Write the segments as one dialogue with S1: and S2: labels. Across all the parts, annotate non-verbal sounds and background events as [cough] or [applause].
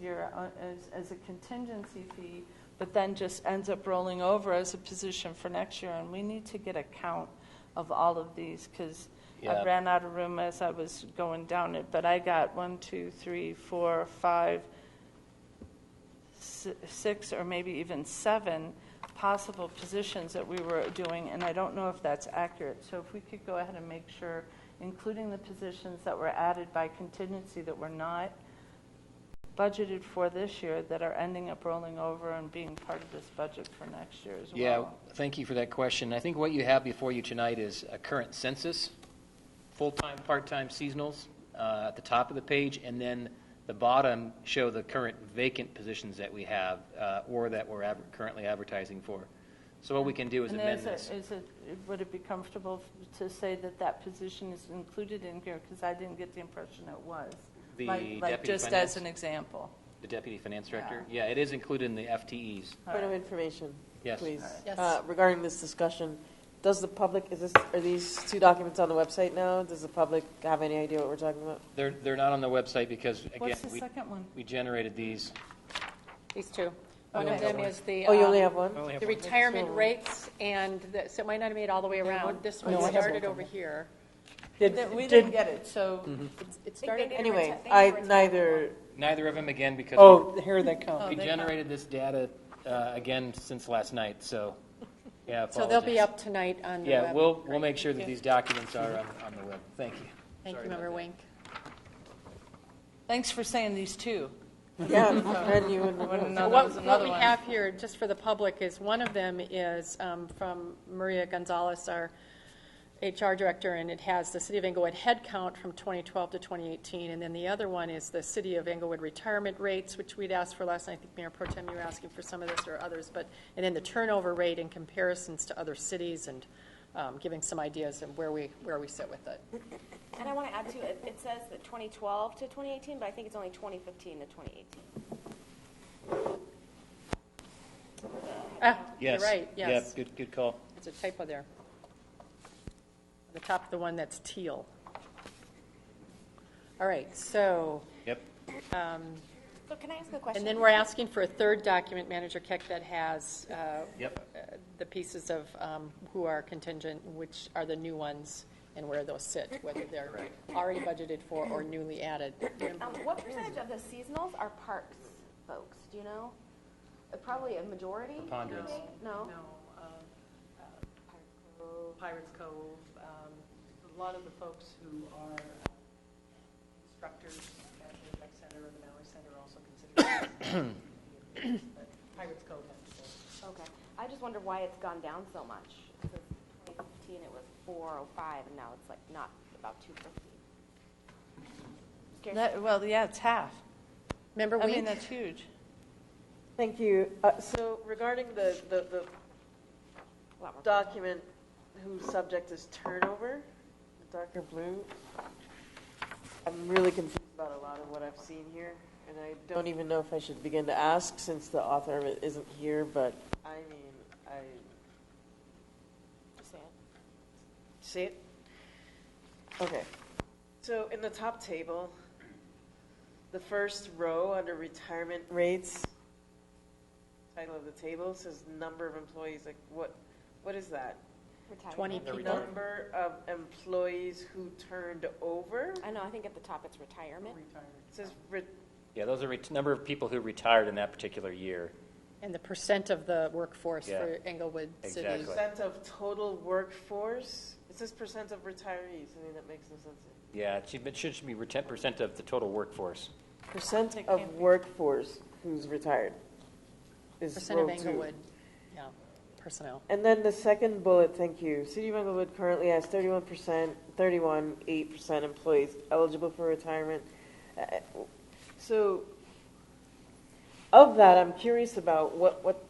S1: your, uh, as, as a contingency fee, but then just ends up rolling over as a position for next year, and we need to get a count of all of these, because I
S2: Yeah.
S1: ran out of room as I was going down it, but I got one, two, three, four, five, si- six or maybe even seven possible positions that we were doing, and I don't know if that's accurate. So if we could go ahead and make sure, including the positions that were added by contingency that were not budgeted for this year, that are ending up rolling over and being part of this budget for next year as
S2: Yeah,
S1: well.
S2: thank you for that question. I think what you have before you tonight is a current census, full-time, part-time, seasonals, uh, at the top of the page, and then the bottom show the current vacant positions that we have, uh, or that we're adver- currently advertising for. So what we can do is
S1: And
S2: amend
S1: a-
S2: this.
S1: is it, would it be comfortable f- to say that that position is included in here? Because I didn't get the impression it was.
S2: The
S1: Like- Like,
S2: deputy
S1: just
S2: finance?
S1: as an example.
S2: The deputy finance director? Yeah, it is included in the FTEs.
S3: Point of information,
S2: Yes.
S3: please.
S4: Yes.
S3: Uh, Regarding this discussion, does the public, is this, are these two documents on the website now? Does the public have any idea what we're talking about?
S2: They're, they're not on the website because, again,
S1: What's the
S2: we,
S1: second one?
S2: we generated these.
S4: These two. One of them is the.
S3: Oh, you only
S4: um,
S3: have one?
S4: The retirement rates, and the- so it might not have made it all the way around. This one
S3: No, I have
S4: started
S3: both of
S4: over here.
S3: Did-
S1: We didn't
S3: did-
S1: get it, so
S3: Mm-hmm.
S4: It's- It started.
S3: Anyway, I neither,
S2: Neither of them, again, because.
S3: oh, here they come.
S2: We generated this data, uh, again, since last night, so, yeah,
S4: [laughs] So they'll
S2: apologies.
S4: be up tonight on the web.
S2: Yeah, we'll, we'll make sure that these documents are on, on the web. Thank you.
S4: Thank you,
S2: Sorry about
S4: Member
S2: that.
S4: Wink.
S1: Thanks for saying these two.
S3: Yeah,
S5: [laughs]
S3: [laughs] and you would
S1: I wouldn't know that
S4: What
S1: was
S4: what
S1: another
S4: we
S1: one.
S4: have here, just for the public, is one of them is um, from Maria Gonzalez, our HR director, and it has the City of Englewood headcount from 2012 to 2018. And then the other one is the City of Englewood retirement rates, which we'd asked for last night. I think Mayor Pro Tem, you were asking for some of this or others, but, and then the turnover rate in comparisons to other cities and um, giving some ideas of where we, where we sit with it.
S6: And I want to add too, it, it says that 2012 to 2018, but I think it's only 2015 to 2018.
S4: Ah, You're
S2: Yes.
S4: right, yes.
S2: Yeah, good, good call.
S4: It's a typo there. The top, the one that's teal. All right, so,
S2: Yep.
S6: So can I ask a question?
S4: and then we're asking for a third document, Manager Keck, that has uh,
S2: Yep.
S4: the pieces of um, who are contingent, which are the new ones, and where those sit, whether they're already budgeted for or newly added.
S6: Um, what percentage of the seasonals are parks folks? Do you know? Uh, Probably a majority.
S2: Preponderance.
S6: you think? No.
S5: No, um, uh, Pirates Cove, um, a lot of the folks who are uh, instructors at the rec center or the Valley Center are also considered. But Pirates Cove, that's
S6: Okay. I just wonder why it's gone down so much. It says 2015 it was 405, and now it's like not about 250. Scares
S1: That- Well, yeah, it's half.
S4: Member
S1: I mean,
S4: Wink?
S1: that's huge.
S3: Thank you. Uh, So regarding the, the, the
S6: me a lot more.
S3: document whose subject is turnover, darker blue, I'm really confused about a lot of what I've seen here, and I don't even know if I should begin to ask since the author of it isn't here, but I mean, I. See it? Okay. So in the top table, the first row under retirement rates, title of the table says number of employees, like what, what is that?
S6: Retirement.
S4: 20 people.
S3: Number of employees who turned over?
S6: I know. I think at the top it's retirement.
S3: It says re-
S2: Yeah, those are ret- number of people who retired in that particular year.
S4: And the percent of the workforce for
S2: Yeah.
S4: Englewood City.
S2: Exactly.
S3: percent of total workforce? It says percent of retirees, I mean, that makes no sense.
S2: Yeah, it should, it should be ten percent of the total workforce.
S3: Percent of workforce who's retired is
S4: Percent of
S3: row two.
S4: Englewood, yeah, personnel.
S3: And then the second bullet, thank you. City of Englewood currently has thirty-one percent, thirty-one, eight percent employees eligible for retirement. Uh, So, of that, I'm curious about what, what,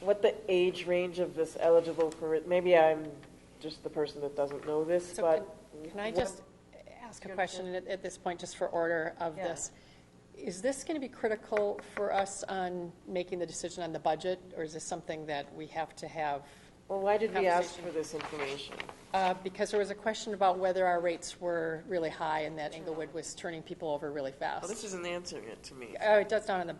S3: what the age range of this eligible for, re- maybe I'm just the person that doesn't know this,
S4: So
S3: but.
S4: can- Can I just ask a question at, at this point, just for order of
S3: Yeah.
S4: this? Is this going to be critical for us on making the decision on the budget, or is this something that we have to have
S3: Well, why did we ask
S4: Conversation.
S3: for this information?
S4: Uh, Because there was a question about whether our rates were really high and that Englewood was turning people over really
S3: Well, this
S4: fast.
S3: isn't answering it to me.
S4: Oh, it does down in the